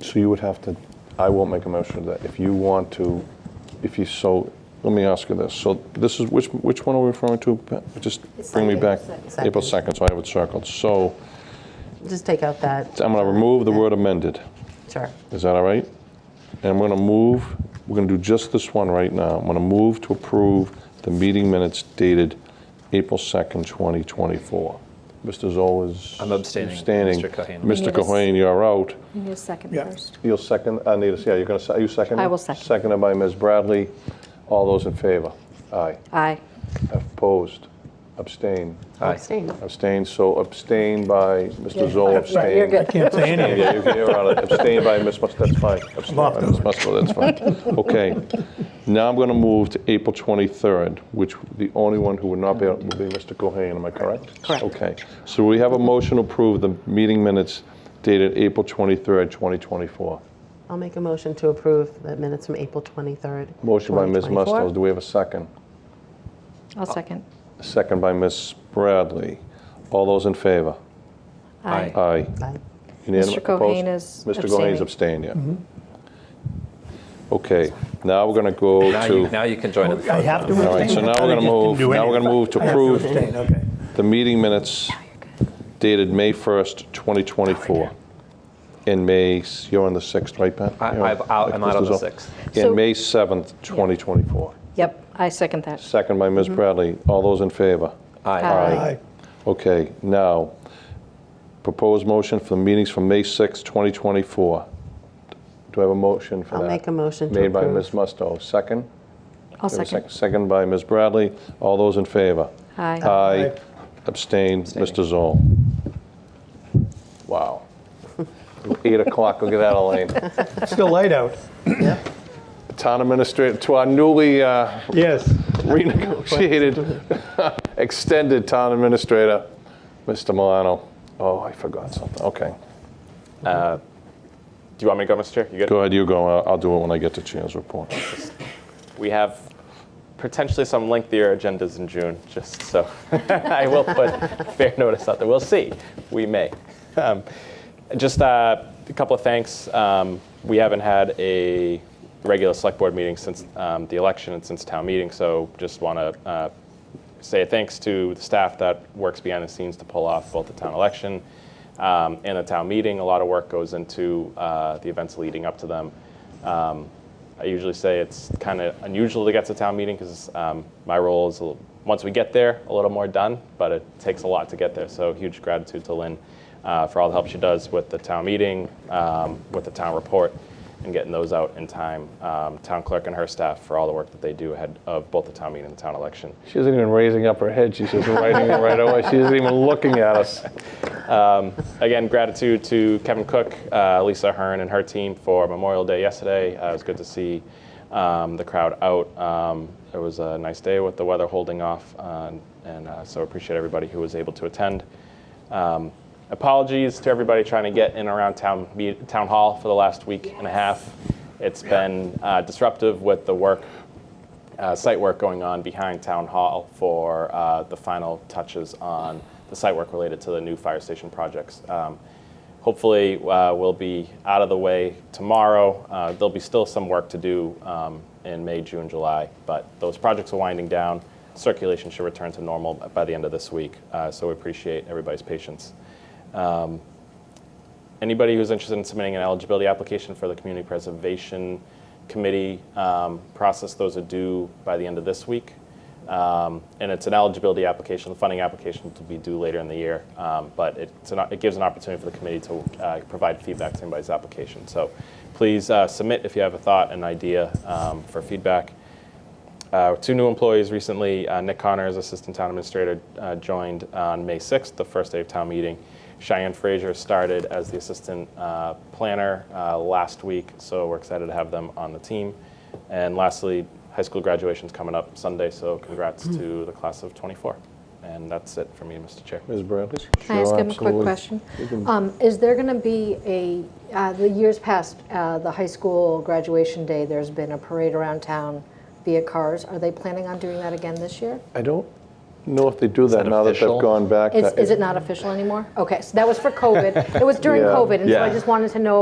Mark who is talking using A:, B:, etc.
A: So you would have to, I won't make a motion to that. If you want to, if you so, let me ask you this. So this is, which, which one are we referring to? Pat? Just
B: It's
A: bring me back.
B: April second.
A: April 2nd, so I have it circled. So
B: Just take out that,
A: I'm going to remove the word amended.
B: sure.
A: Is that all right? And we're going to move, we're going to do just this one right now. I'm going to move to approve the meeting minutes dated April 2nd, 2024. Mr. Zoll is.
C: I'm abstaining.
A: abstaining.
C: Mr. Cohen.
A: Mr.
D: Yes.
A: Cohen, you're out.
D: You need a second
E: Yeah.
D: first.
A: You'll second, uh, Anita, yeah, you're going to, you second?
D: I will
A: it?
D: second.
A: Seconded by Ms. Bradley. All those in favor? Aye.
D: Aye.
A: Opposed? Abstain?
C: Aye.
D: Abstain.
A: Abstain, so abstain by Mr. Zoll, abstain.
D: You're good.
E: I can't say anything.
A: Yeah, you can hear out of abstain by Ms. Musto, that's fine. Abstain
E: off
A: by
E: the
A: Ms. Musto, that's fine. Okay. Now I'm going to move to April 23rd, which the only one who would not be, out will be Mr. Cohen, am I correct?
B: Correct.
A: Okay. So we have a motion to approve the meeting minutes dated April 23rd, 2024.
B: I'll make a motion to approve the minutes from April 23rd.
A: Motion by Ms.
B: 2024.
A: Musto, do we have a second?
D: I'll second.
A: Second by Ms. Bradley. All those in favor?
C: Aye.
A: Aye.
B: Aye.
A: Unanimous-
D: Mr. Cohen
A: opposed?
D: is
A: Mr. Cohen is abstaining, yeah. Okay, now we're going to go
C: Now you,
A: to,
C: now you can join in the
E: I
C: fun.
E: have to
A: All right, so
E: abstain.
A: now
E: I
A: we're gonna
E: just didn't
A: move-
E: do
A: now we're
E: anything.
A: gonna move to
E: I have
A: approve.
E: abstain, okay.
A: the meeting minutes dated May 1st, 2024. And May, s- you're on the 6th, right, Pat?
C: I-
A: You're on-
C: I've out- I'm out on the
A: Mr. Zoll.
C: 6th.
A: And
D: So-
A: May 7th, 2024.
D: Yep, I second that.
A: Second by
D: Mm-hmm.
A: Ms. Bradley. All those in favor?
C: Aye.
E: Aye.
A: Okay, now, proposed motion for the meetings from May 6th, 2024. Do I have a motion for that?
B: I'll make a motion to
A: Made by
B: approve.
A: Ms. Musto, second?
D: I'll
A: Do I have a
D: second.
A: Second by Ms. Bradley. All those in favor?
D: Aye.
A: Aye.
E: Aye.
A: Abstain, Mr. Zoll. Wow. Eight o'clock, look at that, Elaine.
E: Still light out.
A: Town administrator, to our newly uh,
E: Yes.
A: renegotiated, extended town administrator, Mr. Milano. Oh, I forgot something, okay. Uh,
F: Do you want me to go, Mr. Chair? You good?
A: Go ahead, you go, I'll I'll do it when I get to Chan's report.
F: We have potentially some lengthier agendas in June, just so I will put fair notice out there. We'll see. We may. Um, just uh, a couple of thanks. Um, we haven't had a regular select board meeting since um, the election and since town meeting, so just want to uh, say thanks to the staff that works behind the scenes to pull off both the town election um, and the town meeting. A lot of work goes into uh, the events leading up to them. Um, I usually say it's kind of unusual to get to town meeting because um, my role is a little, once we get there, a little more done, but it takes a lot to get there. So huge gratitude to Lynn uh, for all the help she does with the town meeting, um, with the town report, and getting those out in time. Um, town clerk and her staff for all the work that they do ahead of both the town meeting and the town election.
A: She isn't even raising up her head, she's just writing it right away, she isn't even looking at us.
F: Again, gratitude to Kevin Cook, uh, Lisa Hearn, and her team for Memorial Day yesterday. Uh, it was good to see um, the crowd out. Um, it was a nice day with the weather holding off, uh, and uh, so appreciate everybody who was able to attend. Um, apologies to everybody trying to get in and around town me- town hall for the last week and a half. It's been uh, disruptive with the work uh, site work going on behind Town Hall for uh, the final touches on the site work related to the new fire station projects. Um, hopefully, uh, we'll be out of the way tomorrow. Uh, there'll be still some work to do um, in May, June, July, but those projects are winding down. Circulation should return to normal by the end of this week, uh, so we appreciate everybody's patience. Anybody who's interested in submitting an eligibility application for the Community Preservation Committee um, process, those are due by the end of this week. Um, And it's an eligibility application, the funding application will be due later in the year, um, but it's an, it gives an opportunity for the committee to uh, provide feedback to anybody's application. So please uh, submit if you have a thought, an idea um, for feedback. Uh, two new employees recently. Uh, Nick Connors, Assistant Town Administrator, uh, joined on May 6th, the first day of town meeting. Cheyenne Frazier started as the Assistant uh, Planner uh, last week, so we're excited to have them on the team. And lastly, high school graduation's coming up Sunday, so congrats to the class of 24. And that's it for me, Mr. Chair.
A: Ms. Bradley?
G: Can I ask him a quick question? Um, Is there going to be a, uh, the years past, uh, the high school graduation day, there's been a parade around town via cars. Are they planning on doing that again this year?
A: I don't know if they do that
C: that
A: now that they've
C: official?
A: gone back.
G: Is
A: That-
G: is it not official anymore? Okay, so that was for COVID. It was during
A: Yeah.
G: COVID, and so I
C: Yeah.
G: just wanted to know